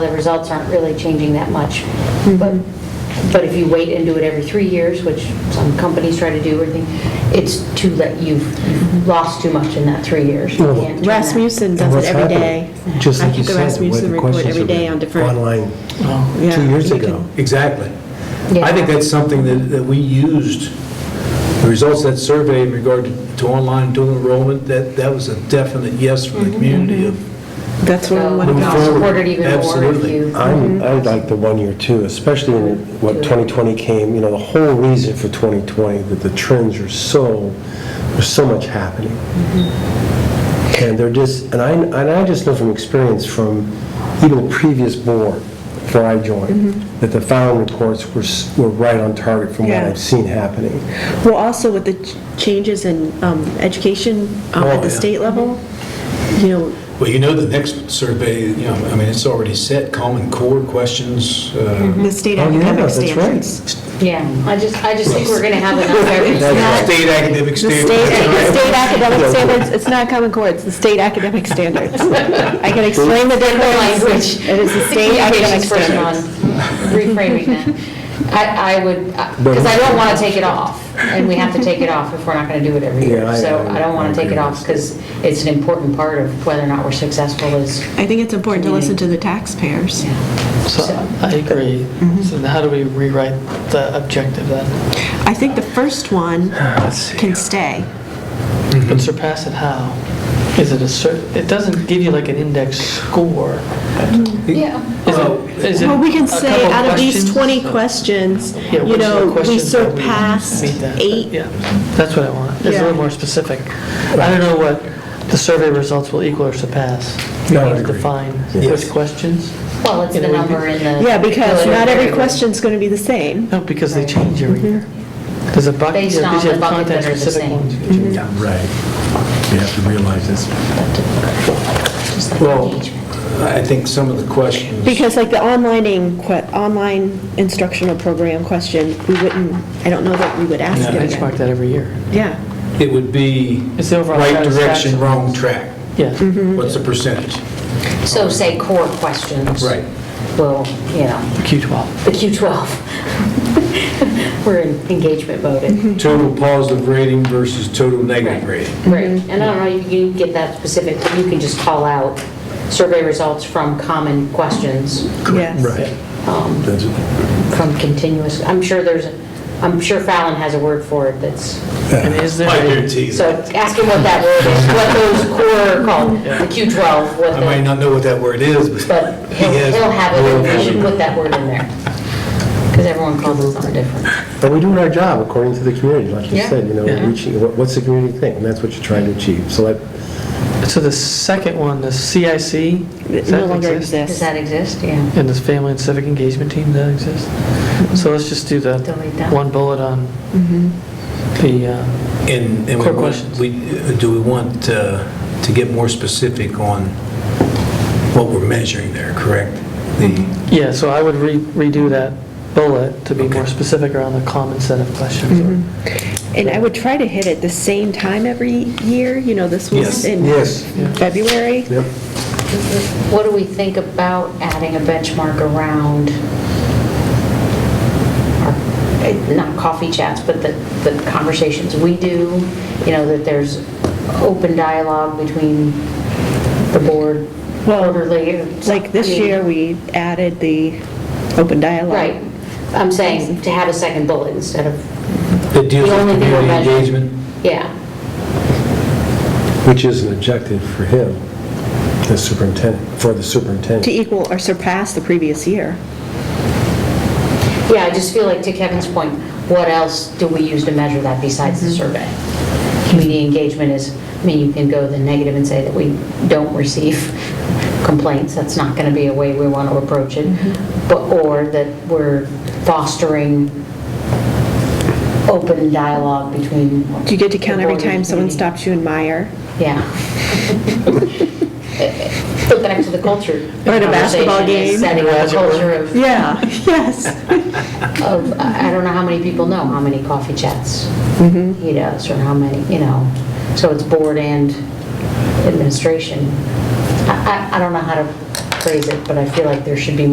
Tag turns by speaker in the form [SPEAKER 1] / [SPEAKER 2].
[SPEAKER 1] The results aren't really changing that much. But, but if you wait and do it every three years, which some companies try to do, or thing, it's too late, you've you've lost too much in that three years. You
[SPEAKER 2] Well,
[SPEAKER 1] can't turn that.
[SPEAKER 3] Rasmussen
[SPEAKER 2] And
[SPEAKER 3] does
[SPEAKER 2] what's
[SPEAKER 3] it every day.
[SPEAKER 2] happening? Just
[SPEAKER 3] I
[SPEAKER 2] like you
[SPEAKER 3] get the
[SPEAKER 2] said, with
[SPEAKER 3] Rasmussen
[SPEAKER 2] the
[SPEAKER 3] report
[SPEAKER 2] questions
[SPEAKER 3] every
[SPEAKER 2] that
[SPEAKER 3] day on
[SPEAKER 2] were
[SPEAKER 3] different,
[SPEAKER 2] Online,
[SPEAKER 3] yeah,
[SPEAKER 2] two years
[SPEAKER 3] you
[SPEAKER 2] ago.
[SPEAKER 3] can-
[SPEAKER 4] Exactly. I
[SPEAKER 1] Yeah.
[SPEAKER 4] think that's something that, that we used, the results of that survey in regard to- to online dual enrollment, that, that was a definite yes from the community of
[SPEAKER 3] that's where we want to
[SPEAKER 1] Move
[SPEAKER 3] go.
[SPEAKER 1] forward.
[SPEAKER 4] forward.
[SPEAKER 1] Support it even more if
[SPEAKER 4] Absolutely.
[SPEAKER 1] you-
[SPEAKER 3] Mm-hmm.
[SPEAKER 2] I'm, I like the one year too, especially when, what, 2020 came, you know, the whole reason for 2020, that the trends are so, there's so much happening.
[SPEAKER 3] Mm-hmm.
[SPEAKER 2] And they're just, and I, and I just know from experience from even the previous board, before I joined, that the Fallon reports were, s- were right on target from what
[SPEAKER 3] Mm-hmm. Yeah.
[SPEAKER 2] I've seen happening.
[SPEAKER 3] Well, also with the ch- changes in um, education um,
[SPEAKER 4] Oh,
[SPEAKER 3] at
[SPEAKER 4] yeah.
[SPEAKER 3] the state level, you know,
[SPEAKER 4] Well, you know, the next survey, you know, I mean, it's already set, common core questions. uh,
[SPEAKER 3] the state
[SPEAKER 2] Oh, yeah,
[SPEAKER 3] academic
[SPEAKER 2] that's right.
[SPEAKER 3] standards.
[SPEAKER 1] Yeah, I just, I just think we're going to have enough every
[SPEAKER 4] State academic
[SPEAKER 5] The
[SPEAKER 4] standards.
[SPEAKER 5] state, the state academic standards, it's not Common Core, it's the state academic standards. I can explain the difference.
[SPEAKER 1] language.
[SPEAKER 5] It is the state academic standards.
[SPEAKER 1] Reframing that. I, I would, because I don't want to take it off, and we have to take it off if we're not going to do it every
[SPEAKER 2] Yeah,
[SPEAKER 1] year.
[SPEAKER 2] I-
[SPEAKER 1] So I don't want to
[SPEAKER 2] I
[SPEAKER 1] take it
[SPEAKER 2] agree.
[SPEAKER 1] off because it's an important part of whether or not we're successful is,
[SPEAKER 3] I think it's important to listen to the taxpayers.
[SPEAKER 6] So I agree.
[SPEAKER 2] Mm-hmm.
[SPEAKER 6] So then how do we rewrite the objective then?
[SPEAKER 3] I think the first one can stay.
[SPEAKER 6] But surpass it how? Is it a cer, it doesn't give you like an index score.
[SPEAKER 1] yeah,
[SPEAKER 6] Is it, is it
[SPEAKER 3] Well, we
[SPEAKER 6] a
[SPEAKER 3] can say
[SPEAKER 6] couple
[SPEAKER 3] out of these
[SPEAKER 6] questions?
[SPEAKER 3] 20 questions,
[SPEAKER 6] Yeah,
[SPEAKER 3] you
[SPEAKER 6] which are the
[SPEAKER 3] know, we
[SPEAKER 6] questions that
[SPEAKER 3] surpassed
[SPEAKER 6] meet that?
[SPEAKER 3] eight.
[SPEAKER 6] Yeah, that's what I want. It's a
[SPEAKER 3] Yeah.
[SPEAKER 6] little more specific. I don't know what the survey results will equal or surpass.
[SPEAKER 2] No, I
[SPEAKER 6] Let's
[SPEAKER 2] agree.
[SPEAKER 6] Define
[SPEAKER 2] Yes.
[SPEAKER 6] which questions.
[SPEAKER 1] well, it's the number in the.
[SPEAKER 3] Yeah, because
[SPEAKER 1] the-
[SPEAKER 3] not every question's going to be the same.
[SPEAKER 6] No, because they change
[SPEAKER 3] Mm-hmm.
[SPEAKER 6] every year. There's a bucket,
[SPEAKER 1] Based on
[SPEAKER 6] there's
[SPEAKER 1] the bucket that are the
[SPEAKER 6] content-specific
[SPEAKER 1] same.
[SPEAKER 6] ones.
[SPEAKER 2] Yeah, right. You have to realize this.
[SPEAKER 1] Just like
[SPEAKER 4] Well,
[SPEAKER 1] engagement.
[SPEAKER 4] I think some of the questions.
[SPEAKER 3] Because like the onlining, que- online instructional program question, we wouldn't, I don't know that we would ask
[SPEAKER 6] Yeah,
[SPEAKER 3] it
[SPEAKER 6] benchmark
[SPEAKER 3] again.
[SPEAKER 6] that every year.
[SPEAKER 3] Yeah,
[SPEAKER 4] It would be
[SPEAKER 6] It's the overall
[SPEAKER 4] right direction,
[SPEAKER 6] satisfaction.
[SPEAKER 4] wrong track.
[SPEAKER 6] Yes.
[SPEAKER 4] What's the percentage?
[SPEAKER 1] So say core questions.
[SPEAKER 4] Right.
[SPEAKER 1] Well, you know,
[SPEAKER 6] Q12.
[SPEAKER 1] the Q12. We're in engagement mode at
[SPEAKER 4] Total positive rating versus total negative rating.
[SPEAKER 1] Right, and I don't know, you can get that specific, but you can just call out survey results from common questions,
[SPEAKER 3] yes.
[SPEAKER 1] um,
[SPEAKER 2] That's it.
[SPEAKER 1] from continuous, I'm sure there's, I'm sure Fallon has a word for it that's,
[SPEAKER 6] And is there,
[SPEAKER 4] I
[SPEAKER 6] a-
[SPEAKER 4] guarantee you.
[SPEAKER 1] so ask him what that word is, what those core are called, the Q12, what
[SPEAKER 4] I might
[SPEAKER 1] the,
[SPEAKER 4] not know what that word is, but.
[SPEAKER 1] but he'll
[SPEAKER 4] he has
[SPEAKER 1] he'll have it,
[SPEAKER 4] world
[SPEAKER 1] and we should
[SPEAKER 4] vision.
[SPEAKER 1] put that word in there. Because everyone calls it something different.
[SPEAKER 2] But we're doing our job according to the community, like you
[SPEAKER 1] Yeah.
[SPEAKER 2] said, you know,
[SPEAKER 6] Yeah.
[SPEAKER 2] reaching, what- what's the community think? And that's what you're trying to achieve. So that,
[SPEAKER 6] so the second one, the CIC?
[SPEAKER 3] It
[SPEAKER 6] does
[SPEAKER 3] no
[SPEAKER 6] that
[SPEAKER 3] longer
[SPEAKER 6] exist?
[SPEAKER 1] Does
[SPEAKER 3] exists.
[SPEAKER 1] that exist? Yeah.
[SPEAKER 6] And this family and civic engagement team, that exists?
[SPEAKER 3] Mm-hmm.
[SPEAKER 6] So let's just do the
[SPEAKER 1] Delete that.
[SPEAKER 6] one bullet on the, uh,
[SPEAKER 4] And, and we
[SPEAKER 6] Quick
[SPEAKER 4] want,
[SPEAKER 6] questions.
[SPEAKER 4] we, do we want uh, to get more specific on what we're measuring there, correct?
[SPEAKER 1] Mm-hmm.
[SPEAKER 4] The,
[SPEAKER 6] yeah, so I would re- redo that bullet to be more
[SPEAKER 4] Okay.
[SPEAKER 6] specific around the common set of
[SPEAKER 3] Mm-hmm.
[SPEAKER 6] questions.
[SPEAKER 3] And I would try to hit it the same time every year, you know, this
[SPEAKER 4] Yes.
[SPEAKER 3] was in
[SPEAKER 2] Yes.
[SPEAKER 3] February.
[SPEAKER 2] yep.
[SPEAKER 1] What do we think about adding a benchmark around our, eh, not coffee chats, but the, the conversations we do? You know, that there's open dialogue between the board
[SPEAKER 3] Well,
[SPEAKER 1] quarterly. or
[SPEAKER 3] Like this
[SPEAKER 1] something.
[SPEAKER 3] year, we added the open dialogue.
[SPEAKER 1] Right. I'm saying to have a second bullet instead of,
[SPEAKER 4] that deals
[SPEAKER 1] The
[SPEAKER 4] with
[SPEAKER 1] only thing we're
[SPEAKER 4] community
[SPEAKER 1] measuring.
[SPEAKER 4] engagement?
[SPEAKER 1] yeah.
[SPEAKER 2] Which is an objective for him, the superintendent, for the
[SPEAKER 3] To
[SPEAKER 2] superintendent.
[SPEAKER 3] equal or surpass the previous year.
[SPEAKER 1] Yeah, I just feel like to Kevin's point, what else do we use to measure that besides the
[SPEAKER 3] Mm-hmm.
[SPEAKER 1] survey? Community engagement is, I mean, you can go the negative and say that we don't receive complaints, that's not going to be a way we want to approach it,
[SPEAKER 3] Mm-hmm.
[SPEAKER 1] but, or that we're fostering open dialogue between.
[SPEAKER 3] Do you get to count
[SPEAKER 1] the
[SPEAKER 3] every
[SPEAKER 1] board and
[SPEAKER 3] time someone
[SPEAKER 1] community?
[SPEAKER 3] stops you in Meyer?
[SPEAKER 1] Yeah. Put that into the culture.
[SPEAKER 3] Or at a basketball
[SPEAKER 1] conversation is
[SPEAKER 3] game.
[SPEAKER 1] Setting up a culture of
[SPEAKER 3] Yeah, yes.
[SPEAKER 1] of, I I don't know how many people know how many coffee chats he does, or how many, you know, so it's board and administration. I, I, I don't know how to phrase it, but I feel like there should be